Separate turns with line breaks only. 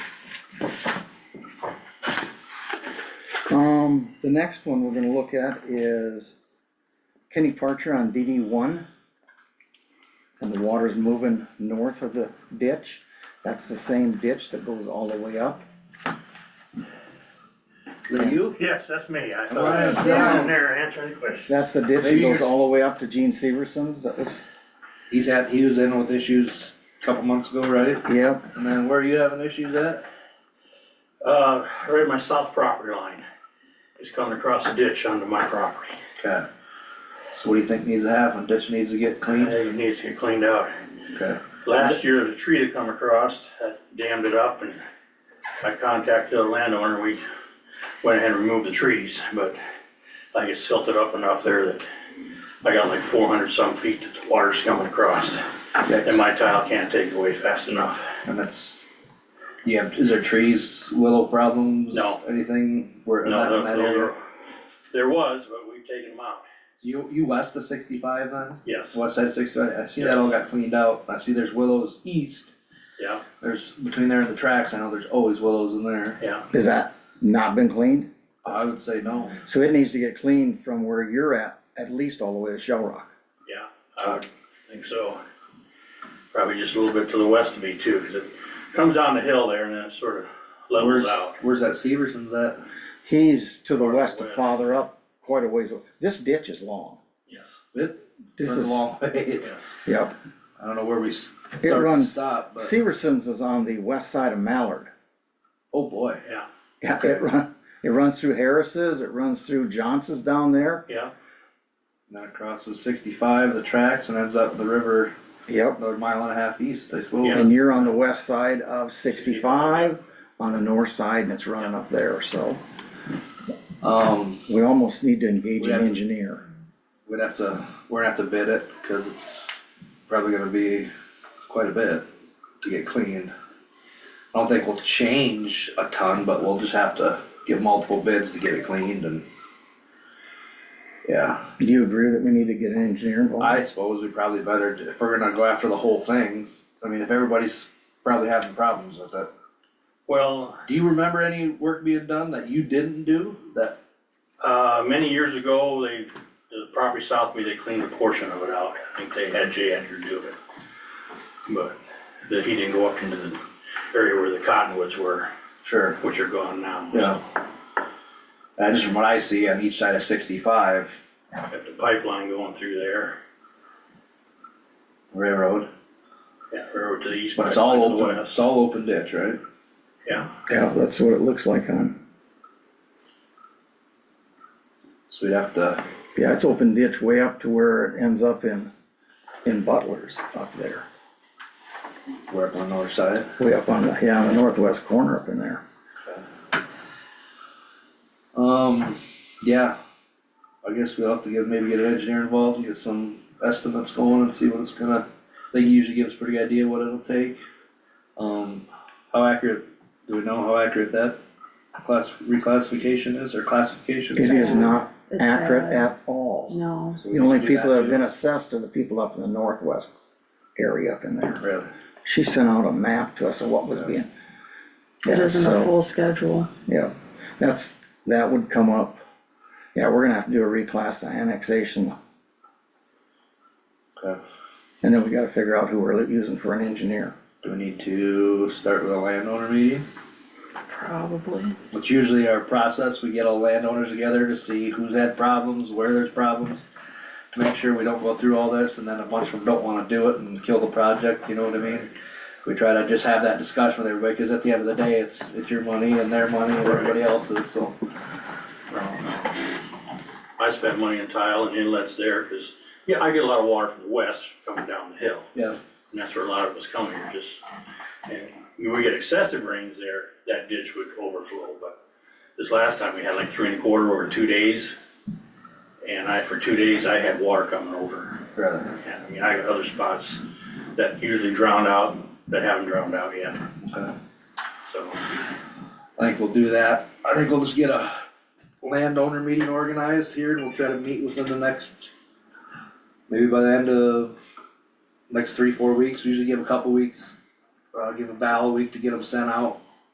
Um, the next one we're gonna look at is Kenny Parcher on DD one. And the water's moving north of the ditch. That's the same ditch that goes all the way up.
Lee, you?
Yes, that's me. I
All
thought
right,
I was
down.
down there answering questions.
That's the ditch that
Maybe you're-
goes all the way up to Gene Severson's. That was,
He's had, he was in with issues a couple months ago, right?
yep,
And then where are you having issues at?
Uh, right at my south property line. It's coming across a ditch onto my property.
Okay. So what do you think needs to happen? Ditch needs to get cleaned?
It needs to get cleaned out.
Okay.
Last year, there's a tree that come across, that dammed it up and I contacted the landowner. We went ahead and removed the trees, but I guess silted up enough there that I got like four hundred some feet that the water's coming across. And
Okay.
my tile can't take it away fast enough.
And that's, yeah, is there trees, willow problems?
No.
Anything where, in
No,
that in
there-
that
there,
area?
there was, but we've taken them out.
You, you west of sixty-five then?
Yes,
West side of sixty-five, I see that all got cleaned out. I see there's willows east.
yeah.
There's, between there and the tracks, I know there's always willows in there.
Yeah,
is that not been cleaned?
I would say no.
So it needs to get cleaned from where you're at, at least all the way to Shell Rock.
yeah, I would think so. Probably just a little bit to the west of me too, because it comes down the hill there and then it sort of
Where's,
levels out.
where's that Severson's at?
He's to the
Farther
west of
west.
Father Up, quite a ways. o- This ditch is long.
Yes,
It
This
runs
is,
a long ways.
yes,
yep.
I don't know where we
It
start and
runs,
stop, but,
Severson's is on the west side of Mallard.
oh boy.
yeah,
Yeah, it run, it runs through Harris's, it runs through Johnson's down there.
yeah,
And That crosses sixty-five, the tracks, and ends up the river
Yep.
another mile and a half east, I suppose.
And you're on the west side of sixty-five, on the north side, and it's running up there, so
Um,
we almost need to engage
We have
an
to-
engineer.
we'd have to, we're gonna have to bid it, cause it's probably gonna be quite a bit to get cleaned. I don't think we'll change a ton, but we'll just have to get multiple bids to get it cleaned and. Yeah.
Do you agree that we need to get an engineer
I
involved?
suppose we probably better, if we're gonna go after the whole thing, I mean, if everybody's probably having problems with it.
well,
Do you remember any work being done that you didn't do, that,
uh, many years ago, they, the property south of me, they cleaned a portion of it out. I think they had Jay Edgar do it. But that he didn't go up into the area where the cottonwoods were,
sure,
which are gone now. so.
yeah. Uh, just from what I see on each side of sixty-five
Got the pipeline going through there,
railroad,
yeah, railroad to the east.
but it's all
pipeline to the
open,
west.
it's all open ditch, right?
Yeah.
Yeah, that's what it looks like on,
So we'd have to,
yeah, it's open ditch way up to where it ends up in, in Butler's up there.
we're up on the north side,
Way up on the, yeah, on the northwest corner up in there.
um, yeah. I guess we'll have to get, maybe get an engineer involved, and get some estimates going and see what it's gonna, I think he usually gives a pretty good idea what it'll take. Um, how accurate, do we know how accurate that class, reclassification is, or classification?
It is not
It's
accurate
bad.
at all.
No,
So we
The
can
only
do
people that have
too.
been assessed are the people up in the northwest area up in there.
Really,
She sent out a map to us of what was being.
it
Yeah,
isn't
so,
a full schedule.
Yeah, that's, that would come up. Yeah, we're gonna have to do a reclass and annexation,
okay,
and then we gotta figure out who we're using for an engineer.
do we need to start with a landowner meeting?
Probably.
It's usually our process, we get all landowners together to see who's had problems, where there's problems. To make sure we don't go through all this and then a bunch of them don't wanna do it and kill the project, you know what I mean? We try to just have that discussion with everybody, cause at the end of the day, it's, it's your money and their money and everybody else's, so.
I spent money on tile and inlets there, cause, yeah, I get a lot of water from the west coming down the hill,
Yeah,
and that's where a lot of us come here, just, and when we get excessive rains there, that ditch would overflow, but this last time, we had like three and a quarter over two days, and I, for two days, I had water coming over,
rather,
and I mean, I got other spots that usually drown out, that haven't drowned out yet,
so.
so,
I think we'll do that. I think we'll just get a landowner meeting organized here and we'll try to meet within the next, maybe by the end of next three, four weeks. We usually give a couple weeks, uh, give a Val a week to get them sent out.